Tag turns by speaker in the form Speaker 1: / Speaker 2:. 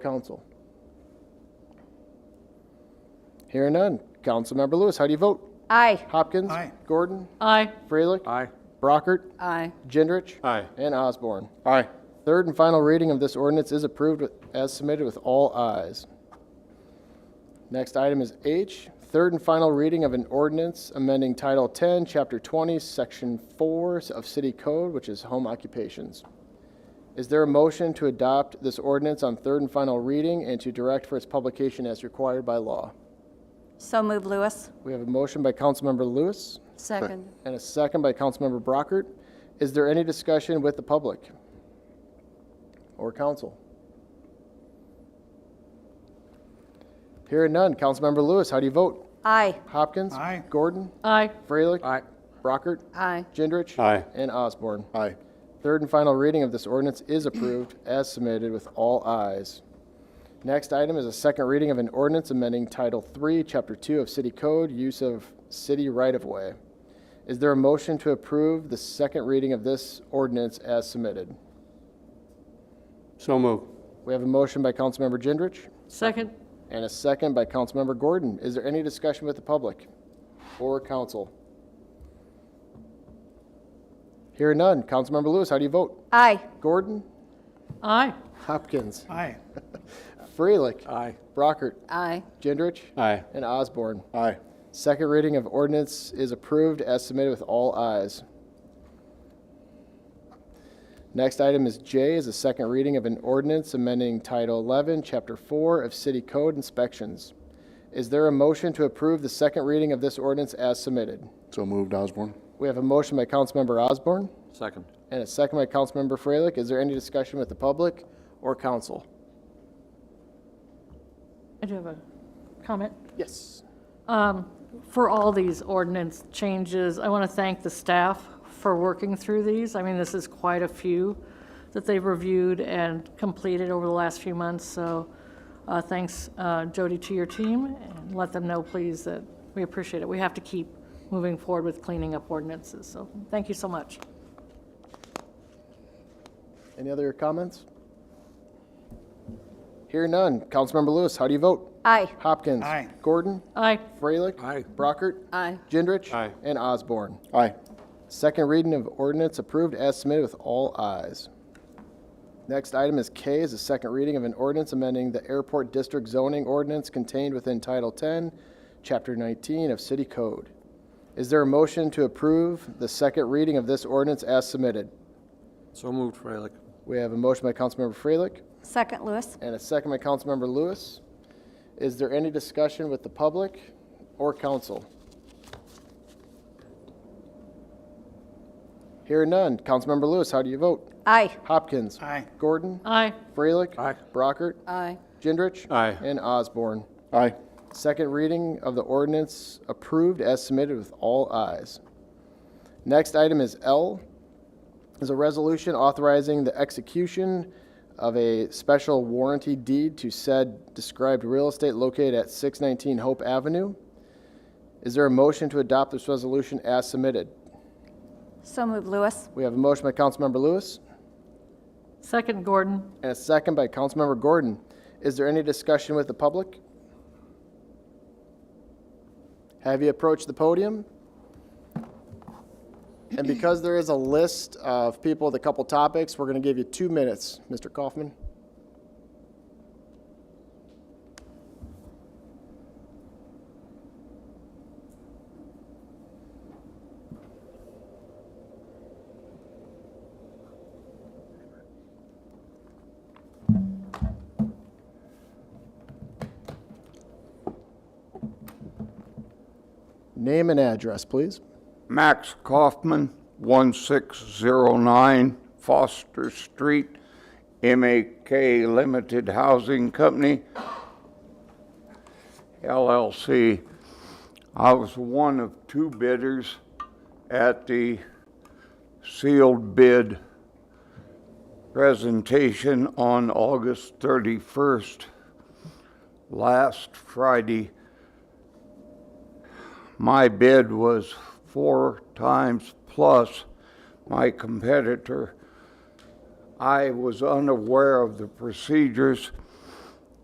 Speaker 1: council? Hearing none. Councilmember Lewis, how do you vote?
Speaker 2: Aye.
Speaker 1: Hopkins?
Speaker 3: Aye.
Speaker 1: Gordon?
Speaker 2: Aye.
Speaker 1: Freilich?
Speaker 4: Aye.
Speaker 1: Brockert?
Speaker 2: Aye.
Speaker 1: Gendrich?
Speaker 4: Aye.
Speaker 1: And Osborne.
Speaker 4: Aye.
Speaker 1: Third and final reading of this ordinance is approved with- as submitted with all ayes. Next item is H, third and final reading of an ordinance amending Title 10, Chapter 20, Section 4 of City Code, which is home occupations. Is there a motion to adopt this ordinance on third and final reading and to direct for its publication as required by law?
Speaker 2: So move, Lewis.
Speaker 1: We have a motion by Councilmember Lewis
Speaker 2: Second.
Speaker 1: and a second by Councilmember Brockert. Is there any discussion with the public or council? Hearing none. Councilmember Lewis, how do you vote?
Speaker 2: Aye.
Speaker 1: Hopkins?
Speaker 3: Aye.
Speaker 1: Gordon?
Speaker 2: Aye.
Speaker 1: Freilich?
Speaker 4: Aye.
Speaker 1: Brockert?
Speaker 2: Aye.
Speaker 1: Gendrich?
Speaker 4: Aye.
Speaker 1: And Osborne.
Speaker 4: Aye.
Speaker 1: Third and final reading of this ordinance is approved as submitted with all ayes. Next item is a second reading of an ordinance amending Title III, Chapter 2 of City Code, Use of City Right-of-Way. Is there a motion to approve the second reading of this ordinance as submitted?
Speaker 4: So moved.
Speaker 1: We have a motion by Councilmember Gendrich
Speaker 2: Second.
Speaker 1: and a second by Councilmember Gordon. Is there any discussion with the public or council? Hearing none. Councilmember Lewis, how do you vote?
Speaker 2: Aye.
Speaker 1: Gordon?
Speaker 2: Aye.
Speaker 1: Hopkins?
Speaker 3: Aye.
Speaker 1: Freilich?
Speaker 4: Aye.
Speaker 1: Brockert,
Speaker 2: Aye.
Speaker 1: Gendrich,
Speaker 4: Aye.
Speaker 1: and Osborne.
Speaker 4: Aye.
Speaker 1: Second reading of ordinance is approved as submitted with all ayes. Next item is J is a second reading of an ordinance amending Title 11, Chapter 4 of City Code Inspections. Is there a motion to approve the second reading of this ordinance as submitted?
Speaker 4: So moved, Osborne.
Speaker 1: We have a motion by Councilmember Osborne
Speaker 4: Second.
Speaker 1: and a second by Councilmember Freilich. Is there any discussion with the public or council?
Speaker 5: I do have a comment.
Speaker 1: Yes.
Speaker 5: Um, For all these ordinance changes, I want to thank the staff for working through these. I mean, this is quite a few that they've reviewed and completed over the last few months, so uh, thanks, uh, Jody, to your team, and let them know, please, that we appreciate it. We have to keep moving forward with cleaning up ordinances, so thank you so much.
Speaker 1: Any other comments? Hear none. Councilmember Lewis, how do you vote?
Speaker 2: Aye.
Speaker 1: Hopkins.
Speaker 3: Aye.
Speaker 1: Gordon.
Speaker 5: Aye.
Speaker 1: Freilich.
Speaker 4: Aye.
Speaker 1: Brockert.
Speaker 2: Aye.
Speaker 1: Gendrich.
Speaker 4: Aye.
Speaker 1: And Osborne.
Speaker 4: Aye.
Speaker 1: Second reading of ordinance approved as submitted with all ayes. Next item is K is a second reading of an ordinance amending the airport district zoning ordinance contained within Title 10, Chapter 19 of City Code. Is there a motion to approve the second reading of this ordinance as submitted?
Speaker 4: So moved, Freilich.
Speaker 1: We have a motion by Councilmember Freilich.
Speaker 2: Second, Lewis.
Speaker 1: And a second by Councilmember Lewis. Is there any discussion with the public or council? Hearing none. Councilmember Lewis, how do you vote?
Speaker 2: Aye.
Speaker 1: Hopkins.
Speaker 3: Aye.
Speaker 1: Gordon.
Speaker 5: Aye.
Speaker 1: Freilich.
Speaker 4: Aye.
Speaker 1: Brockert.
Speaker 2: Aye.
Speaker 1: Gendrich.
Speaker 4: Aye.
Speaker 1: And Osborne.
Speaker 4: Aye.
Speaker 1: Second reading of the ordinance approved as submitted with all ayes. Next item is L, is a resolution authorizing the execution of a special warranty deed to said described real estate located at 619 Hope Avenue. Is there a motion to adopt this resolution as submitted?
Speaker 2: So move, Lewis.
Speaker 1: We have a motion by Councilmember Lewis
Speaker 5: Second, Gordon.
Speaker 1: and a second by Councilmember Gordon. Is there any discussion with the public? Have you approached the podium? And because there is a list of people with a couple topics, we're going to give you two minutes, Mr. Kaufman. Name and address, please.
Speaker 6: Max Kaufman, 1609 Foster Street, MAK Limited Housing Company, LLC. I was one of two bidders at the sealed bid presentation on August 31st, last Friday my bid was four times plus my competitor. I was unaware of the procedures